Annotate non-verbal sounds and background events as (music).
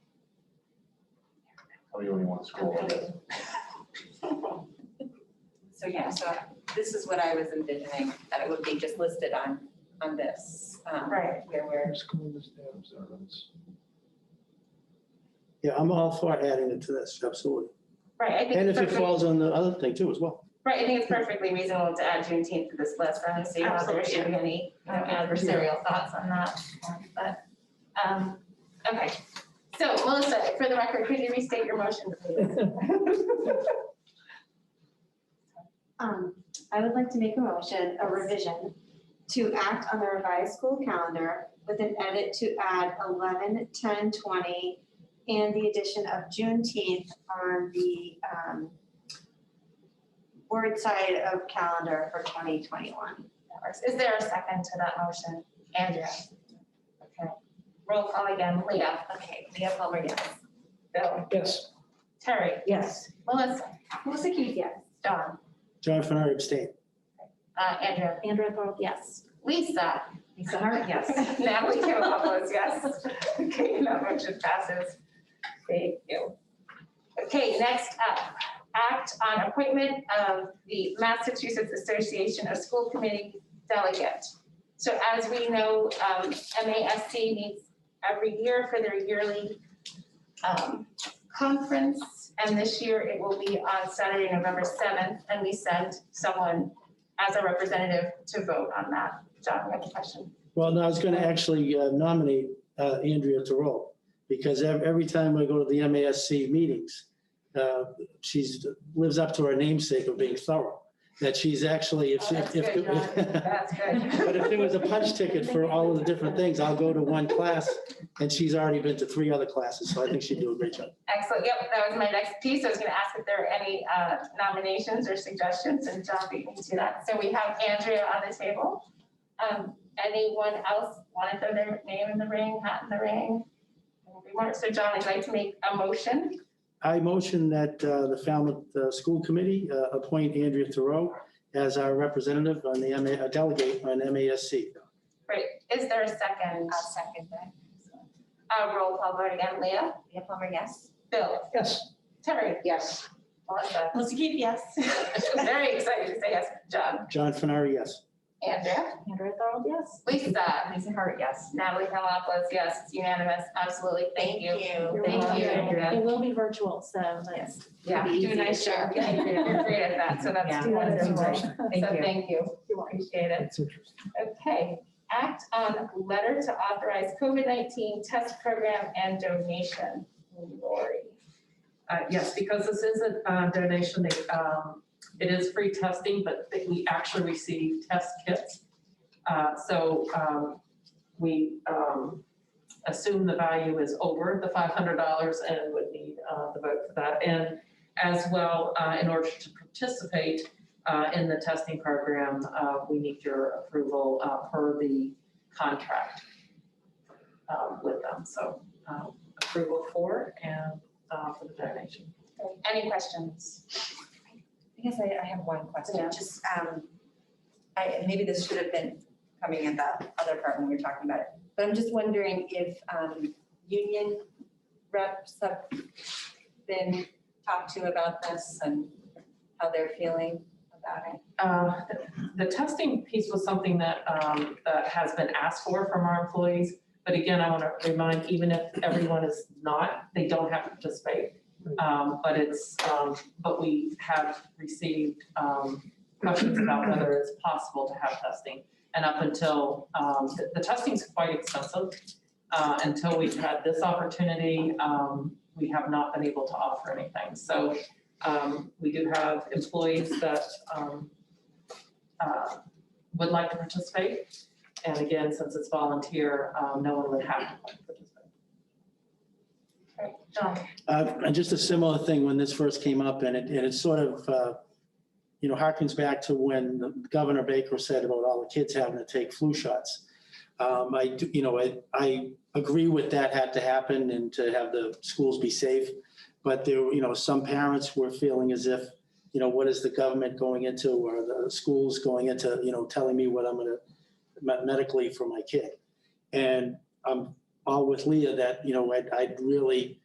Or you only want to scroll on it? So yeah, so this is what I was envisioning, that it would be just listed on, on this. um, Right. Where we're, School is their observance. Yeah, I'm all for adding it to this, absolutely. Right, I think. And if it perfect- falls on the other thing too as well. Right, I think it's perfectly reasonable to add Juneteenth to this list, for so you know, there should be any you know, adversarial thoughts on that. But, um, okay. So Melissa, for the record, could you restate your motion, please? Um, I would like to make a motion, a revision, to act on the revised school calendar with an edit to add 11, 10, 20, and the addition of Juneteenth on the, um, word side of calendar for twenty twenty-one. That works. Is there a second to that motion? Andrea? Okay. Roll call again. Leah? Okay, Leah Palmer, yes. Bill? Yes. Terry? Yes. Melissa? Melissa Keith, yes. Don? John Fenner abstain. Uh, Andrea? Andrea Thorold, yes. Lisa? Lisa Hart, (laughs) yes. Natalie Kimopoulos, yes. Okay, that motion passes. Thank you. Okay, next up, act on appointment of the Massachusetts Association of School Committee Delegate. So as we know, um, MASC meets every year for their yearly um, conference. And this year it will be on Saturday, November 7th, and we send someone as a representative to vote on that. John, you have a question? Well, no, I was going to actually uh, nominate uh, Andrea Thoreau because ev- every time I go to the MASC meetings, uh, she's, lives up to her namesake of being thorough, that she's actually, if, Oh, that's if. if- good, John. That's good. (laughs) But if there was a punch ticket for all of the different things, I'll go to one class and she's already been to three other classes, so I think she'd do a great job. Excellent. Yep, that was my next piece. I was going to ask if there are any uh, nominations or suggestions, and John beat me to that. So we have Andrea on the table. Um, Anyone else want to throw their name in the ring, hat in the ring? Anybody want- So John, I'd like to make a motion. I motion that uh, the Falmouth uh, School Committee uh, appoint Andrea Thoreau as our representative on the, MA uh, delegate on MASC. Great. Is there a second? I'll second that. Uh, Roll call vote again. Leah? Leah Palmer, yes? Bill? Yes. Terry? Yes. Melissa? Melissa Keith, yes. (laughs) Very excited to say yes. John? John Fenari, yes. Andrea? Andrea Thorold, yes. Lisa? Lisa Hart, yes. Natalie Kalopoulos, yes, it's unanimous, absolutely, thank (laughs) you. You're Thank welcome. you, Andrea. It will be virtual, so that's. Yeah. it'll be Do a nice easy. job. Thank you. You're great at that, so that's Do that as a wonderful. So motion. thank you, You're welcome. appreciate it. That's interesting. Okay, act on letter to authorize COVID-19 test program and donation. Lori. Uh, yes, because this isn't uh, donation, they, um, it is free testing, but that we actually receive test kits. Uh, so, um, we, um, assume the value is over the five hundred dollars and would need, uh, the vote for that. And as well, uh, in order to participate, uh, in the testing program, uh, we need your approval, uh, per the contract, um, with them. So, uh, approval for and uh, for the donation. Any questions? I guess I, I have one Yeah. question, just, um, I, maybe this should have been coming in the other part when we were talking about it. But I'm just wondering if, um, union reps have been talked to about this and how they're feeling about it. Uh, The testing piece was something that, um, that has been asked for from our employees. But again, I want to remind, even if everyone is not, they don't have to participate. Um, But it's, um, but we have received um, questions about whether it's possible to have testing. And up until, um, the- the testing's quite expensive. Uh, Until we've had this opportunity, um, we have not been able to offer anything. So um, we do have employees that, um, uh, would like to participate. And again, since it's volunteer, um, no one would have to participate. John? Uh, And just a similar thing when this first came up and it, and it sort of, uh, you know, harkens back to when Governor Baker said about all the kids having to take flu shots. Um, I, do- you know, I, I agree with that had to happen and to have the schools be safe. But there, were, you know, some parents were feeling as if, you know, what is the government going into or the schools going into, you know, telling me what I'm gonna me- medically for my kid? And I'm all with Leah that, you know, I'd, I'd really